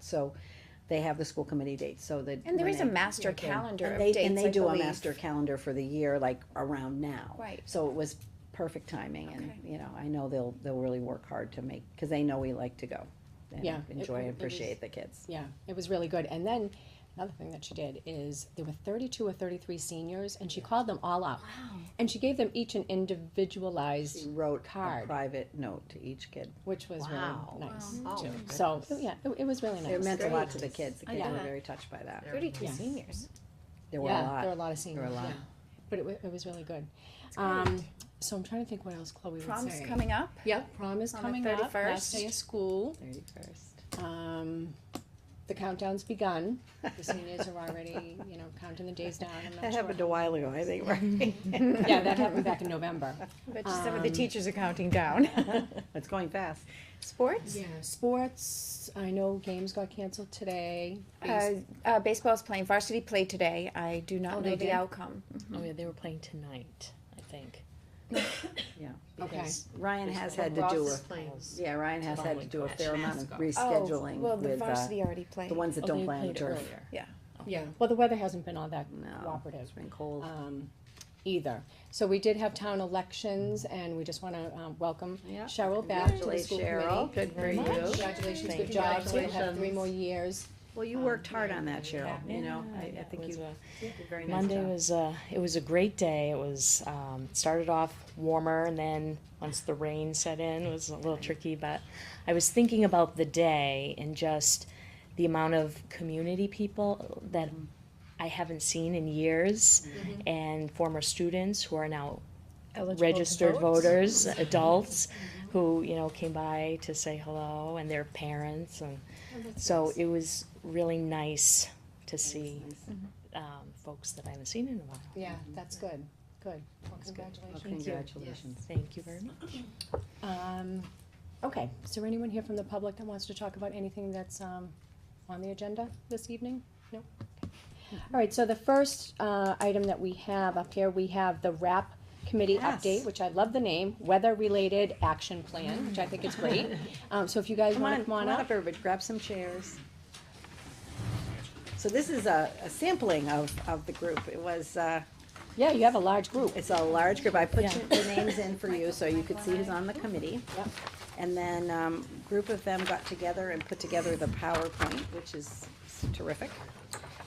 so they have the school committee dates, so that. And there when is a they- master Yeah, yeah. calendar And of they- dates, And I they do a believe. master calendar for the year, like around now. Right. So it was perfect timing and, Okay. you know, I know they'll, they'll really work hard to make, cause they know we like to go. and Yeah, it- Enjoy and it was- appreciate the kids. Yeah, it was really good. And then another thing that she did is there were 32 or 33 seniors, and she called them all out. Wow. And she gave them each an She individualized, wrote a Card. private note to each kid. which was Wow. really nice. Oh, too. my So yeah, it, it was really nice. It meant a lot great. to the kids, the I kids know were that. very touched by that, Thirty-two Yeah. seniors. there were a yeah, there were a lot, lot there of were seniors. a lot. yeah. But it, wa- it was really good. Um, so I'm trying to think what else Chloe was Prom's saying. coming up. Yep, prom is on the coming up. Last 31st. day of school. Thirty-first. Um, the countdown's begun. The seniors are already, you know, counting the days down. I'm not That sure happened a while ago, I think, right? Yeah, that happened back in November. But just some of the Um, teachers are counting down. It's going fast. Sports? Yeah, sports, I know games got canceled today. Uh, uh, baseball's playing, varsity play today. I do Oh, not they know the did? outcome. Oh yeah, they were playing tonight, I think. Okay, because Ryan has had to Ross do is a, playing. yeah, Ryan has had to do a fair amount of Oh, well, rescheduling the with, uh, varsity already played. the ones that Oh, don't they play on the played turf. earlier. Yeah. yeah, well, the weather hasn't been all that No, cooperative it's been cold. um, either. So we did have town elections, and we just want to welcome Yeah. Cheryl back to the Congratulate school Cheryl, committee. good for Very much. you. Congratulations, Thank good you. job, so you'll have three more years. Well, you worked hard on that, Cheryl, you know, I, I It think was you a- did a very nice Monday job. was uh, it was a great day. It was um, it started off warmer, and then once the rain set in, it was a little tricky. But I was thinking about the day and just the amount of community people that Mm. I haven't seen in years, Mm-hmm. and former students who are now registered voters, adults, who you know came by to say hello, and their parents, and so it was really nice to see um, folks that I haven't seen in a while. Yeah, that's good, good. Well, Well, congratulations. Congratulations. Thank you very much. Um, okay, is there anyone here from the public that wants to talk about anything that's, um, on the agenda this evening? No? Okay. All right, so the first, uh, item that we have up here, we have the RAP committee Yes. update, which I love the name, weather-related action plan, which I think is great. Um, so if you guys Come on, wanna come on up, everybody, grab some chairs. So this is a, a sampling of, of the group, it was, uh, yeah, you have a large group. It's a large group. I put Yeah. the names in for you, so you could see who's on the committee. Yep. And then, um, group of them got together and put together the PowerPoint, which is terrific.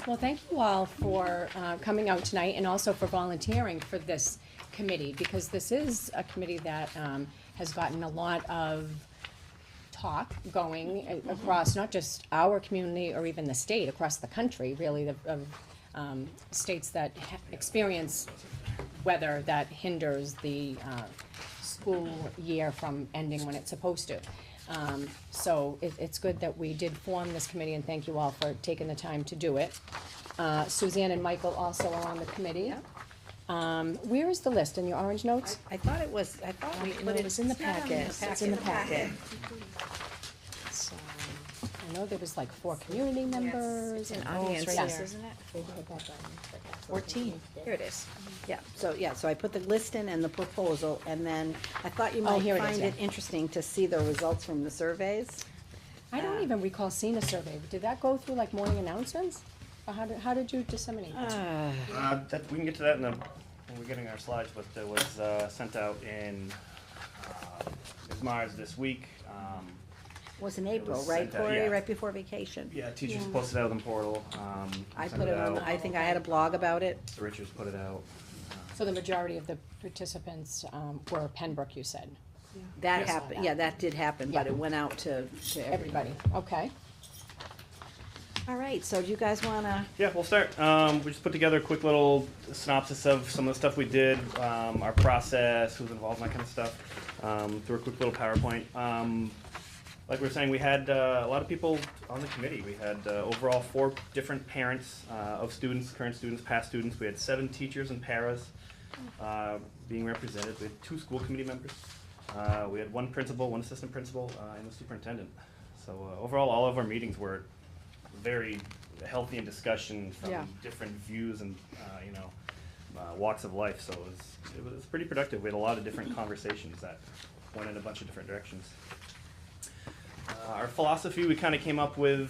Well, thank you all for uh, coming out tonight and also for volunteering for this committee, because this is a committee that um, has gotten a lot of talk going a- across not just our community or even the state, across the country, really, the- of um, states that ha- experience weather that hinders the uh, school year from ending when it's supposed to. Um, So it, it's good that we did form this committee, and thank you all for taking the time to do it. Uh, Suzanne and Michael also are on the committee. Um, Where is the list, in your orange notes? I thought it was, I thought we No, put it it, was in the not on the packet, it's in the packet. So, I know there was like four community members. It's an and- audience, right this, there. isn't it? fourteen. Here it is. yeah, so, yeah, so I put the list in and the proposal, and then I thought you Oh, might here it is, find yeah. it interesting to see the results from the surveys. I don't even recall seeing a survey, did that go through like morning announcements? Or how did, how did you disseminate? that? Uh, that, we can get to that in the, when we're getting our slides, but that was, uh, sent out in, uh, Ms. Mars this week. Um, Was in It was April, right, sent out, Corey, yeah. right before vacation? yeah, teachers posted out on the portal, um. I sent put it on, out. I think I had a blog about it, The Richards put it out. So the majority of the participants um, were Pembroke, you said, that Yes. happened, yeah, that did happen, but Yeah. it went out to, to everybody. everybody, okay? All right, so do you guys wanna Yeah, we'll start. Um, we just put together a quick little synopsis of some of the stuff we did, um, our process, who's involved, and that kind of stuff, um, through a quick little PowerPoint. Um, like we were saying, we had uh, a lot of people on the committee. We had uh, overall four different parents uh, of students, current students, past students. We had seven teachers and paras uh, being represented. We had two school committee members. Uh, we had one principal, one assistant principal, uh, and the superintendent. So uh, overall, all of our meetings were very healthy in discussion from Yeah. different views and uh, you know uh, walks of life. So it was it was pretty productive. We had a lot of different conversations that went in a bunch of different directions. Uh, our philosophy we kind of came up with